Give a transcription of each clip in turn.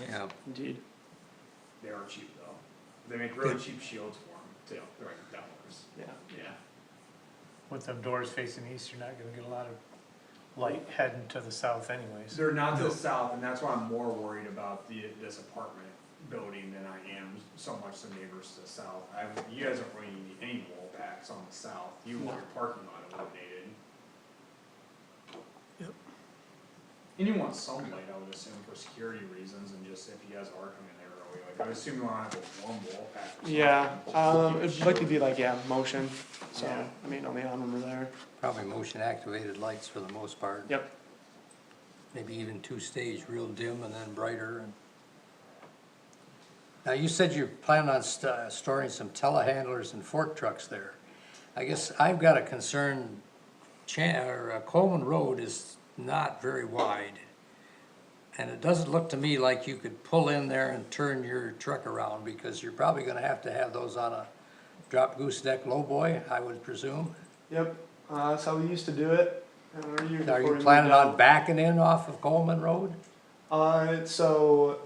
Yeah, Indeed. They are cheap though. They make really cheap shields for them too. They're like dollars. Yeah. Yeah. With them doors facing east, you're not gonna get a lot of light heading to the south anyways. They're not to the south, and that's why I'm more worried about the, this apartment building than I am so much the neighbors to the south. I, you guys aren't really need any wall packs on the south, you want your parking lot eliminated. Yep. And you want some light, I would assume, for security reasons, and just if you guys are coming there early, like, I would assume you wanna have one wall pack or something. Yeah, um, it'd like to Sure. be like, yeah, motion, so, Yeah. I mean, on the arm over there, probably motion activated lights for the most part. yep, Maybe even two stage, real dim and then brighter and. Now, you said you plan on st- uh, storing some telehandlers and fork trucks there. I guess I've got a concern, Chan, or uh, Coleman Road is not very wide. And it doesn't look to me like you could pull in there and turn your truck around because you're probably gonna have to have those on a drop goose deck lowboy, I would presume. yep, uh, that's how we used to do it. and we're using Are you accordingly planning now. on backing in off of Coleman Road? Uh, so,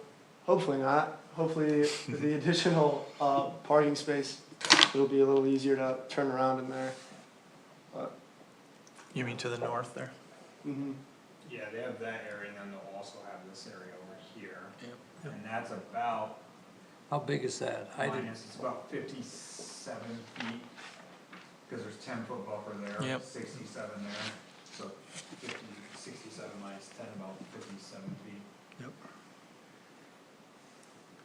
hopefully not, hopefully with the additional, uh, parking space, it'll be a little easier to turn around in there. You mean to the north there? Mm-hmm. Yeah, they have that area, and then they'll also have this area over here. Yep. And that's about How big is that? I didn't, minus, it's about fifty-seven feet, cause there's ten foot buffer there, Yep. sixty-seven there. So fifty, sixty-seven minus ten, about fifty-seven feet. Yep.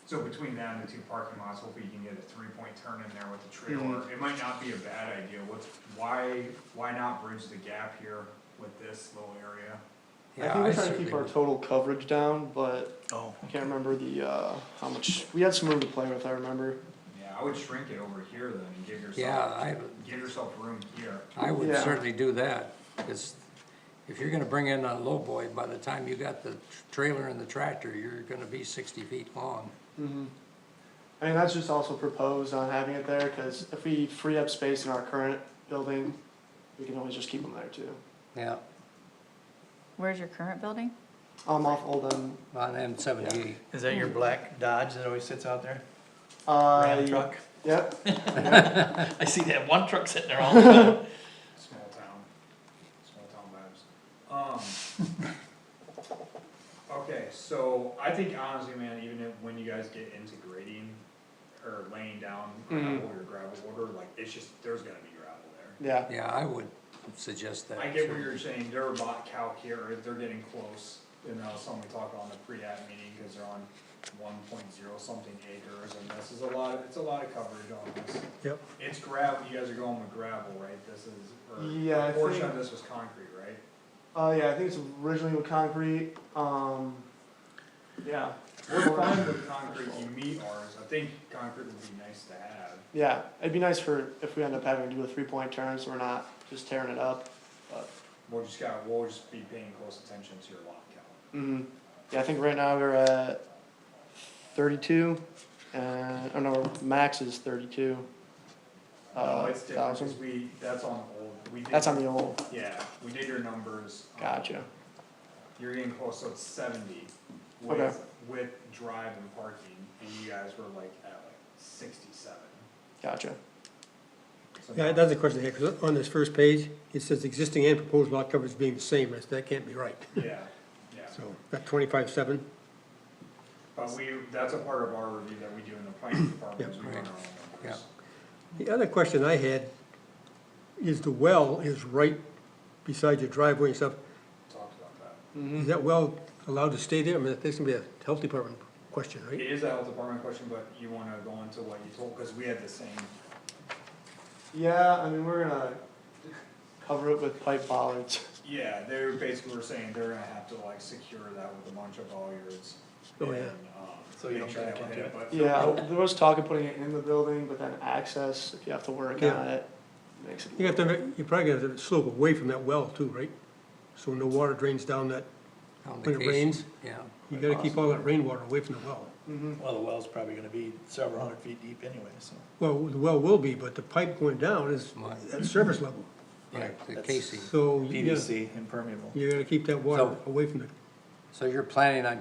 So between that and the two parking lots, hopefully you can get a three-point turn in there with the trailer. It might not be a bad idea, what's, why, why not bridge the gap here with this little area? I yeah, think I we're trying to certainly, keep our would. total coverage down, but Oh, I can't remember the, uh, how much, we had some room to play with, I remember. Yeah, I would shrink it over here then and give yourself. yeah, I, Give yourself room here. I would Yeah. certainly do that. Cause if you're gonna bring in a lowboy, by the time you got the trailer and the tractor, you're gonna be sixty feet long. Mm-hmm. I mean, that's just also proposed on having it there, cause if we free up space in our current building, we can always just keep them there too. Yeah, Where's your current building? I'm off Oldham, on M seventy-eight. is that your black Dodge that always sits out there? Ram uh, truck? yep, I see that one truck sitting there all the time. Small town, small town vibes. Um. Okay, so I think honestly, man, even if, when you guys get into grading or laying down gravel Mhm. or gravel order, like, it's just, there's gonna be gravel there. yeah, Yeah, I would suggest that. I get what certainly. you're saying, they're about calc here, they're getting close, you know, something we talked on the pre-app meeting, cause they're on one point zero something acres, and this is a lot, of- it's a lot of coverage on this. Yep. It's gravel, you guys are going with gravel, right? This is, Yeah, or, I a portion think- of this was concrete, right? uh, yeah, I think it's originally with concrete, um, yeah, We're fine with concrete, you meet ours, I think concrete would be nice to have. yeah, it'd be nice for, if we end up having to do a three-point turn, so we're not just tearing it up. We'll just got, we'll just be paying close attention to your lot count. Mm-hmm. Yeah, I think right now we're at thirty-two, and, oh no, max is thirty-two. No, Uh, Oh, it's different, thousand. cause we, that's on old, we did. That's on the old. Yeah, we did your numbers. um, Gotcha. You're getting close, so it's seventy Okay. with, with drive and parking, and you guys were like at like sixty-seven. Gotcha. So Yeah, now- that's a question I had, 'cause on this first page, it says existing and proposed lot coverage being the same, that's, that can't be right. Yeah, yeah. So, that twenty-five seven, But we, that's a part of our review that we do in the planning department, is we run our own numbers. Yeah. the other question I had is the well is right beside your driveway and stuff, Talked about that. Mm-hmm. is that well allowed to stay there? I mean, that's gonna be a health department question, It right? is a health department question, but you wanna go into what you told, cause we had the same, Yeah, I mean, we're gonna cover it with pipe bollards. yeah, they were basically were saying they're gonna have to like secure that with a bunch of lawyers. Oh, yeah. and, um, So you make don't sure back that into would- it? but- Yeah, there was talk of putting it in the building, but then access, if you have to work Yeah. on it, makes it. You got to, you probably got to slope away from that well too, right? So no water drains down that, On when it vacation, rains, Yeah, you gotta keep all that rainwater away from the well. Mm-hmm, Well, the well's probably gonna be several hundred feet deep anyway, so. Well, the well will be, but the pipe going down is Mine. at surface level, yeah, the That's- casing. so you gotta, PVC impermeable. you gotta keep that water So- away from the So you're planning on